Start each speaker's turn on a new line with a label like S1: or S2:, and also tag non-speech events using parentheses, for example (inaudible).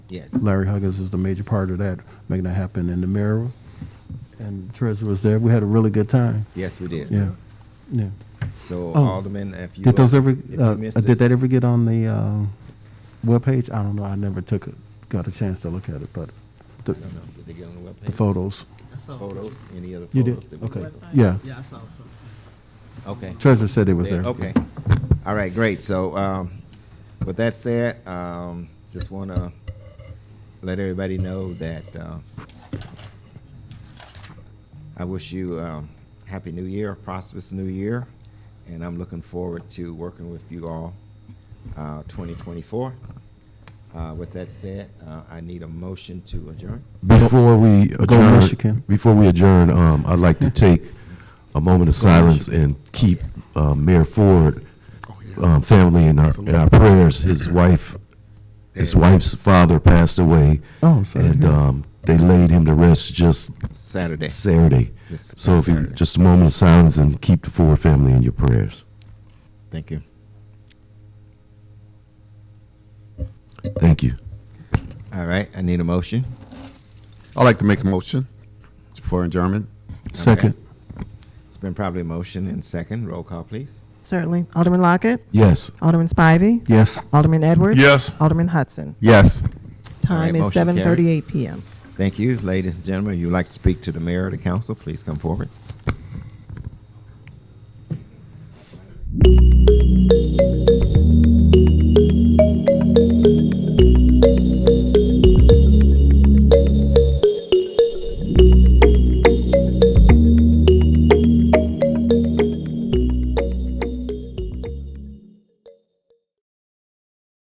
S1: Yes.
S2: Larry Huggins is the major part of that, making that happen. And the mayor and the treasurer was there. We had a really good time.
S1: Yes, we did.
S2: Yeah, yeah.
S1: So
S2: Oh.
S1: Alderman, if you
S2: Did those
S1: uh,
S2: ever,
S1: if you
S2: uh,
S1: missed it-
S2: did that ever get on the uh, webpage? I don't know. I never took it, got a chance to look at it, but the,
S1: I don't know. Did they get on the webpage?
S2: the photos.
S3: I saw
S1: Photos. Any other photos?
S2: You did?
S1: that we-
S2: Okay.
S3: Website?
S2: Yeah.
S3: Yeah, I saw it.
S1: Okay.
S2: Treasurer said it was
S1: There,
S2: there.
S1: Okay. All right, great. So um, with that said, um, just want to let everybody know that uh, I wish you um, happy new year, prosperous new year, and I'm looking forward to working with you all uh, 2024. Uh, with that said, uh, I need a motion to adjourn.
S4: Before we
S2: Michigan.
S4: adjourn, before we adjourn, um,
S2: (laughs)
S4: I'd like to take a moment of silence and keep, um, Mayor Ford,
S2: Oh,
S4: um, family in our, in our prayers. His wife, his wife's father passed away.
S2: Oh, sorry.
S4: And, um, they laid him to rest just
S1: Saturday.
S4: Saturday.
S1: This
S4: So if you,
S1: Saturday.
S4: just a moment of silence and keep the Ford family in your prayers.
S1: Thank you.
S4: Thank you.
S1: All right, I need a motion.
S5: I'd like to make a motion for adjournment.
S2: Second.
S1: It's been probably motion and second. Roll call, please.
S6: Certainly. Alderman Lockett,
S4: Yes.
S6: Alderman Spivey,
S2: Yes.
S6: Alderman Edwards.
S5: Yes.
S6: Alderman Hudson.
S5: Yes.
S6: Time is
S1: motion carries.
S6: 7:38 p.m.
S1: Thank you, ladies and gentlemen. If you'd like to speak to the mayor or the council, please come forward.